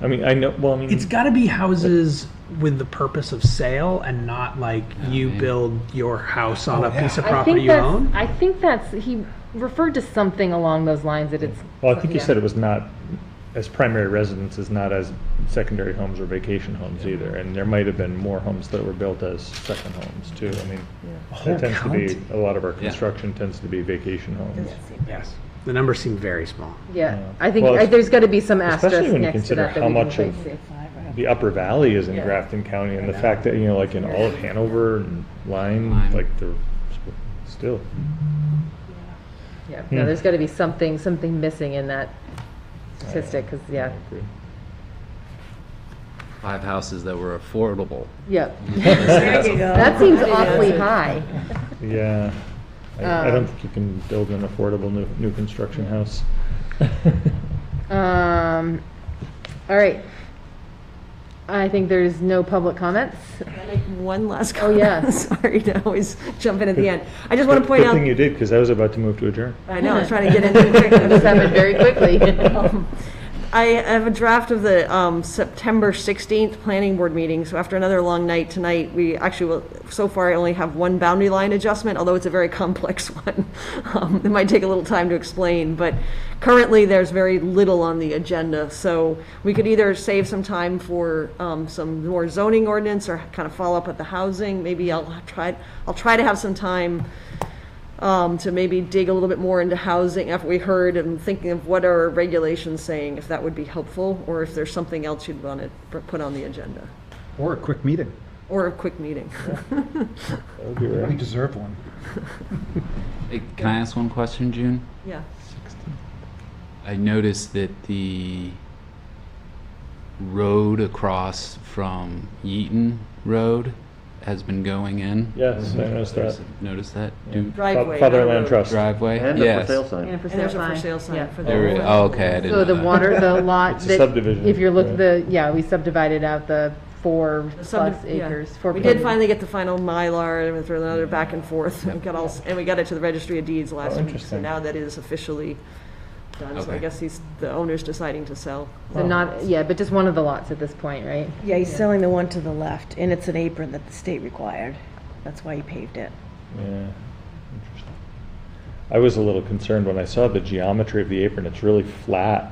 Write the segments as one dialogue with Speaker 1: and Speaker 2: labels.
Speaker 1: I mean, I know. Well, I mean,
Speaker 2: It's got to be houses with the purpose of sale and not like you
Speaker 3: man.
Speaker 2: build your house on a piece of
Speaker 4: Oh, I
Speaker 2: property
Speaker 4: think
Speaker 2: you
Speaker 4: that's,
Speaker 2: own.
Speaker 4: I think that's, he referred to something along those lines that it's.
Speaker 1: well, I think you
Speaker 4: yeah.
Speaker 1: said it was not as primary residences, not as secondary homes or vacation homes either. And there might have been more homes that were built as second homes too. I mean,
Speaker 2: whole
Speaker 1: that tends to be
Speaker 2: county?
Speaker 1: a lot of our construction tends to be vacation homes.
Speaker 2: Yes, the numbers seem very small.
Speaker 4: Yeah, I think
Speaker 1: Well,
Speaker 4: I- there's gotta be some
Speaker 1: especially
Speaker 4: asterisk
Speaker 1: when you
Speaker 4: next to
Speaker 1: consider
Speaker 4: that that
Speaker 1: how
Speaker 4: we can
Speaker 1: much
Speaker 4: quite
Speaker 1: of-
Speaker 4: see.
Speaker 1: The Upper Valley is in
Speaker 4: Yeah.
Speaker 1: Grafton County, and the fact that you know, like in all of Hanover and Lyme,
Speaker 3: Lyme.
Speaker 1: like they're sp- still.
Speaker 4: Yeah, no,
Speaker 1: Hmm.
Speaker 4: there's gotta be something, something missing in that statistic, cause, yeah,
Speaker 3: Five houses that were affordable.
Speaker 4: yeah.
Speaker 5: There you go.
Speaker 4: That seems awfully high.
Speaker 1: Yeah, I, I don't
Speaker 4: Um,
Speaker 1: think you can build an affordable new new construction house.
Speaker 4: Um, all right. I think there's no public comments.
Speaker 5: Can I make One last
Speaker 4: Oh,
Speaker 5: comment.
Speaker 4: yeah.
Speaker 5: Sorry to always jump in at the end. I just want to point
Speaker 1: Good
Speaker 5: out,
Speaker 1: thing you did, because I was about to move to adjourn.
Speaker 5: I know, I was trying to get into it. quick.
Speaker 4: This happened very quickly.
Speaker 5: Um, I have a draft of the um, September 16th planning board meeting, so after another long night tonight, we actually, will so far, I only have one boundary line adjustment, although it's a very complex one. Um, It might take a little time to explain, but currently, there's very little on the agenda, so we could either save some time for um, some more zoning ordinance or kind of follow up with the housing, maybe I'll try, I'll try to have some time um, to maybe dig a little bit more into housing after we heard and thinking of what are our regulations saying, if that would be helpful, or if there's something else you'd want to put on the agenda,
Speaker 6: Or a quick meeting.
Speaker 5: or a quick meeting.
Speaker 1: That would be
Speaker 6: We
Speaker 1: rare.
Speaker 6: deserve one.
Speaker 3: Hey, Can I ask one question, June?
Speaker 5: Yeah.
Speaker 3: I noticed that the road across from Yeaton Road has been going in.
Speaker 1: Yes, I noticed that.
Speaker 3: Noticed that? Do-
Speaker 5: Driveway. not a
Speaker 1: Fatherland
Speaker 5: road.
Speaker 1: Trust.
Speaker 3: Driveway?
Speaker 7: And a for
Speaker 3: Yes.
Speaker 7: sale sign.
Speaker 4: for
Speaker 5: And there's a for sale sign for
Speaker 3: There we-
Speaker 5: the.
Speaker 3: oh, okay, I didn't
Speaker 4: So
Speaker 3: know
Speaker 4: the
Speaker 3: that.
Speaker 4: water, the lot
Speaker 1: It's a
Speaker 4: that.
Speaker 1: subdivision,
Speaker 4: If you're look,
Speaker 1: right.
Speaker 4: the, yeah, we subdivided out the four
Speaker 5: the sub-
Speaker 4: plus
Speaker 5: yeah.
Speaker 4: acres. four
Speaker 5: We
Speaker 4: point-
Speaker 5: did finally get the final Mylar, and through another back and forth, and got all, s- and we got it to the registry of deeds last week. So
Speaker 1: Oh, interesting.
Speaker 5: now that is officially done, so I
Speaker 3: Okay.
Speaker 5: guess he's, the owner's deciding to sell.
Speaker 4: So not, yeah, but just one of the lots at this point, right?
Speaker 5: Yeah,
Speaker 8: He's selling the one to the left, and it's an apron that the state required. That's why he paved it.
Speaker 1: Yeah, interesting. I was a little concerned when I saw the geometry of the apron. It's really flat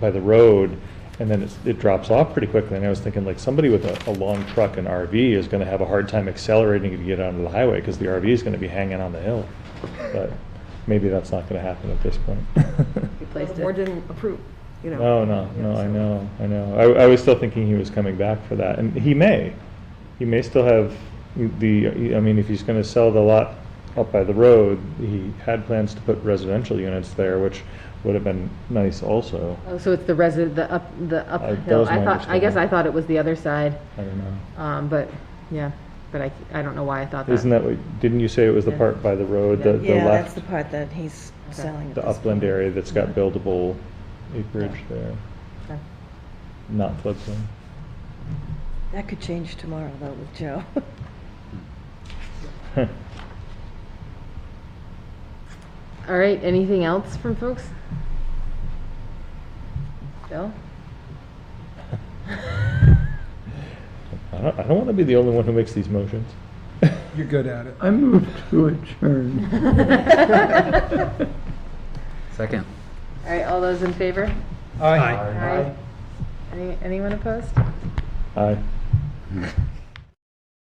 Speaker 1: by the road, and then it's, it drops off pretty quickly. And I was thinking, like, somebody with a, a long truck and RV is going to have a hard time accelerating to get onto the highway because the RV is going to be hanging on the hill. But maybe that's not going to happen at this point.
Speaker 4: Replaced
Speaker 5: The board
Speaker 4: it.
Speaker 5: didn't approve, you know.
Speaker 1: Oh, No, no, no, I know, I know. I, I was still thinking he was coming back for that, and he may. He may still have the, I mean, if he's gonna sell the lot up by the road, he had plans to put residential units there, which would have been nice also.
Speaker 4: Oh, so it's the resi, the up, the
Speaker 1: Uh, that
Speaker 4: uphill.
Speaker 1: was
Speaker 4: I
Speaker 1: my
Speaker 4: thought, I guess
Speaker 1: understanding.
Speaker 4: I thought it was the other side,
Speaker 1: I don't know.
Speaker 8: Uh-huh.
Speaker 4: um, but, yeah, but I, I don't know why I thought that.
Speaker 1: Isn't that what, didn't you say it was the part by the road, the, the
Speaker 8: Yeah, that's
Speaker 1: left,
Speaker 8: the part that he's selling. at
Speaker 1: the
Speaker 8: this
Speaker 1: upland
Speaker 8: point.
Speaker 1: area that's got buildable acreage there?
Speaker 4: Okay.
Speaker 1: Not floodplain.
Speaker 8: That could change tomorrow, though, with Joe.
Speaker 4: All right, anything else from folks? Bill?
Speaker 1: I don't, I don't wanna be the only one who makes these motions.
Speaker 6: You're good at it.
Speaker 9: I move to adjourn.
Speaker 3: Second.
Speaker 4: All right, all those in favor?
Speaker 6: Aye.
Speaker 4: Aye. Any- Anyone opposed?
Speaker 1: Aye.